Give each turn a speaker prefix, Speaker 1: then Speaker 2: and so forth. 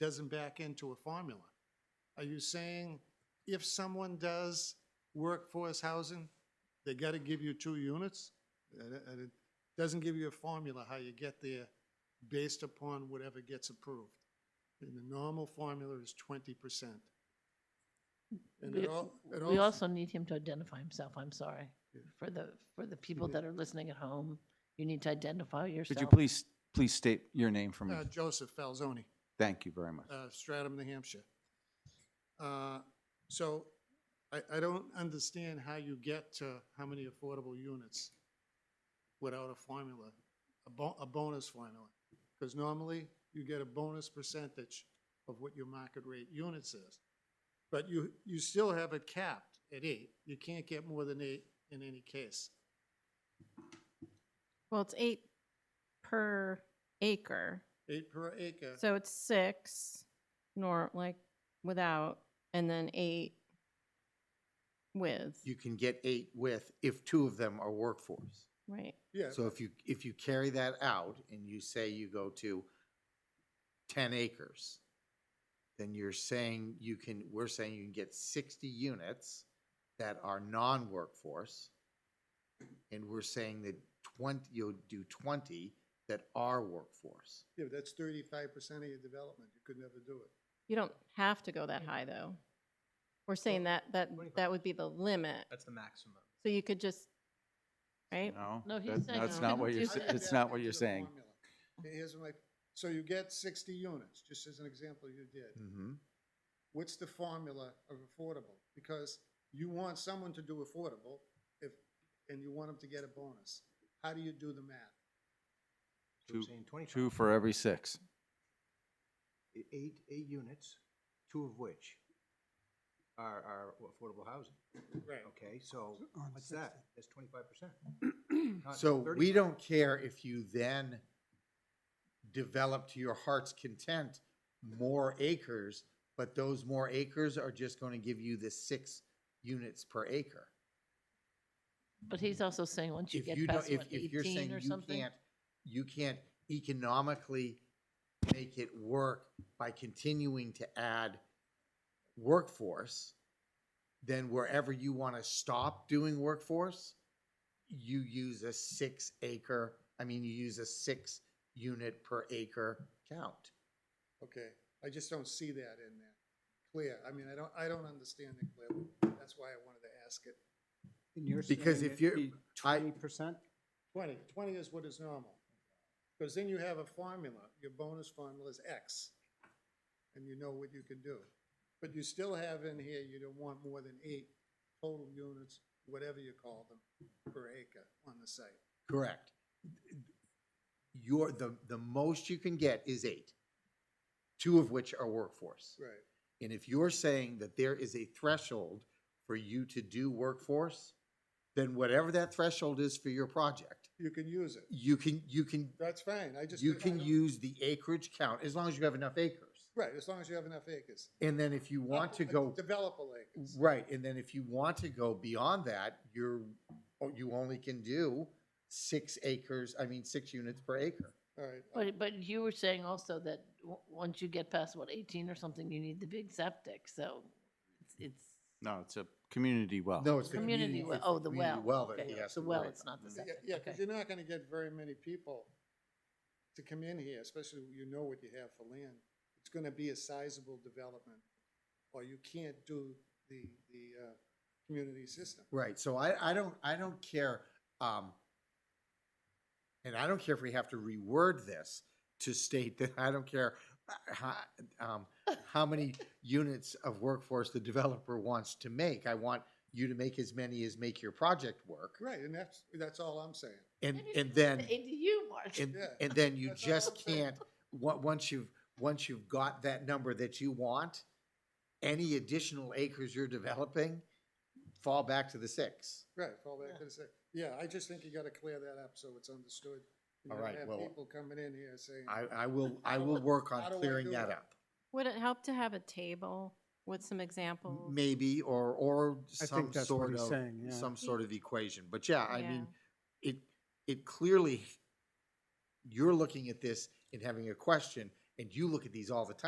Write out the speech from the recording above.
Speaker 1: doesn't back into a formula. Are you saying if someone does workforce housing, they gotta give you two units? And it- and it doesn't give you a formula how you get there based upon whatever gets approved. And the normal formula is twenty percent. And
Speaker 2: We-
Speaker 1: it all, it
Speaker 2: We
Speaker 1: all,
Speaker 2: also need him to identify himself, I'm sorry, for the, for the people that are listening at home. You need to identify
Speaker 3: Could you
Speaker 2: yourself.
Speaker 3: please, please state your name for me?
Speaker 1: uh, Joseph Falzoni.
Speaker 3: Thank you very much.
Speaker 1: uh, Stratham, New Hampshire. Uh, So I, I don't understand how you get to how many affordable units without a formula, a bo, a bonus formula. Because normally you get a bonus percentage of what your market rate units is. But you, you still have it capped at eight. You can't get more than eight in any case.
Speaker 4: Well, it's eight per acre,
Speaker 1: Eight per acre.
Speaker 4: so it's six, nor, like, without, and then eight with,
Speaker 5: You can get eight with if two of them are workforce.
Speaker 4: right?
Speaker 1: Yeah,
Speaker 5: So if you, if you carry that out and you say you go to ten acres, then you're saying you can, we're saying you can get sixty units that are non-workforce. And we're saying that twenty, you'll do twenty that are workforce.
Speaker 1: yeah, that's thirty-five percent of your development. You could never do it.
Speaker 4: You don't have to go that high, though. We're saying that, that, that would be the limit,
Speaker 6: That's the maximum.
Speaker 4: so you could just, right?
Speaker 3: No?
Speaker 2: No, uh, he's
Speaker 3: that-
Speaker 2: saying
Speaker 3: That's
Speaker 2: you
Speaker 3: not
Speaker 2: couldn't
Speaker 3: what you're,
Speaker 2: do
Speaker 3: sa-
Speaker 2: that.
Speaker 3: it's not what you're saying.
Speaker 1: Here's my, so you get sixty units, just as an example you did.
Speaker 5: Mm-hmm.
Speaker 1: What's the formula of affordable? Because you want someone to do affordable if, and you want them to get a bonus. How do you do the math?
Speaker 6: So we're
Speaker 3: Two-
Speaker 6: saying 25.
Speaker 3: Two for every six.
Speaker 6: E- Eight, eight units, two of which are, are affordable housing.
Speaker 1: Right.
Speaker 6: Okay, so what's that? That's twenty-five percent.
Speaker 5: So we don't care if you then develop to your heart's content more acres, but those more acres are just gonna give you the six units per acre.
Speaker 2: But he's also saying, once you
Speaker 5: If
Speaker 2: get
Speaker 5: you don't,
Speaker 2: past
Speaker 5: if,
Speaker 2: what,
Speaker 5: if you're saying
Speaker 2: eighteen or
Speaker 5: you
Speaker 2: something?
Speaker 5: can't, you can't economically make it work by continuing to add workforce, then wherever you wanna stop doing workforce, you use a six acre, I mean, you use a six unit per acre count.
Speaker 1: Okay, I just don't see that in there. Clear, I mean, I don't, I don't understand it clearly. That's why I wanted to ask it.
Speaker 5: Because if you're, I,
Speaker 1: Twenty. Twenty is what is normal. Because then you have a formula, your bonus formula is X, and you know what you can do. But you still have in here, you don't want more than eight total units, whatever you call them, per acre on the site.
Speaker 5: correct. Your, the, the most you can get is eight, two of which are workforce.
Speaker 1: Right.
Speaker 5: And if you're saying that there is a threshold for you to do workforce, then whatever that threshold is for your project,
Speaker 1: You can use it,
Speaker 5: you can, you can,
Speaker 1: that's fine, I just.
Speaker 5: you
Speaker 1: I
Speaker 5: can
Speaker 1: don't-
Speaker 5: use the acreage count as long as you have enough acres.
Speaker 1: Right, as long as you have enough acres. Uh,
Speaker 5: And then if you want to go,
Speaker 1: Developable acres.
Speaker 5: right, and then if you want to go beyond that, you're, oh, you only can do six acres, I mean, six units per acre.
Speaker 1: All right.
Speaker 2: But, but you were saying also that w- once you get past what, eighteen or something, you need the big septic, so it's, it's,
Speaker 3: No, it's a community well.
Speaker 5: No, it's the
Speaker 2: community,
Speaker 5: community.
Speaker 2: well.
Speaker 5: it's
Speaker 2: oh, the
Speaker 5: community
Speaker 2: well.
Speaker 5: that
Speaker 2: Okay,
Speaker 5: he has
Speaker 2: The
Speaker 5: to
Speaker 2: well,
Speaker 5: worry
Speaker 2: it's not the
Speaker 1: Yeah,
Speaker 2: septic,
Speaker 1: Yeah, because
Speaker 2: okay.
Speaker 1: you're not gonna get very many people to come in here, especially when you know what you have for land. It's gonna be a sizable development, or you can't do the, the, uh, community system.
Speaker 5: Right, so I, I don't, I don't care, um, and I don't care if we have to reword this to state that I don't care uh, how, um, how many units of workforce the developer wants to make. I want you to make as many as make your project work.
Speaker 1: Right, and that's, that's all I'm saying.
Speaker 5: And,
Speaker 2: Maybe
Speaker 5: and
Speaker 2: it's
Speaker 5: then.
Speaker 2: The ADU, Mark.
Speaker 5: And,
Speaker 1: Yeah.
Speaker 5: and then you
Speaker 1: That's all I'm
Speaker 5: just
Speaker 1: saying.
Speaker 5: can't, on- once you've, once you've got that number that you want, any additional acres you're developing fall back to the six.
Speaker 1: Right, fall back to the sec- Yeah, I just think you gotta clear that up so it's understood. You
Speaker 5: All
Speaker 1: don't
Speaker 5: right,
Speaker 1: have
Speaker 5: well-
Speaker 1: People coming in here saying,
Speaker 5: I, I will, I will work
Speaker 1: How
Speaker 5: on
Speaker 1: do I
Speaker 5: clearing
Speaker 1: do
Speaker 5: that
Speaker 1: it?
Speaker 5: up.
Speaker 4: Would it help to have a table with some examples?
Speaker 5: Maybe, or, or
Speaker 7: I
Speaker 5: some
Speaker 7: think that's what
Speaker 5: sort
Speaker 7: he's
Speaker 5: of,
Speaker 7: saying, yeah.
Speaker 5: some sort of equation. But yeah, I
Speaker 4: Yeah.
Speaker 5: mean, it, it clearly, you're looking at this and having a question, and you look at these all the time.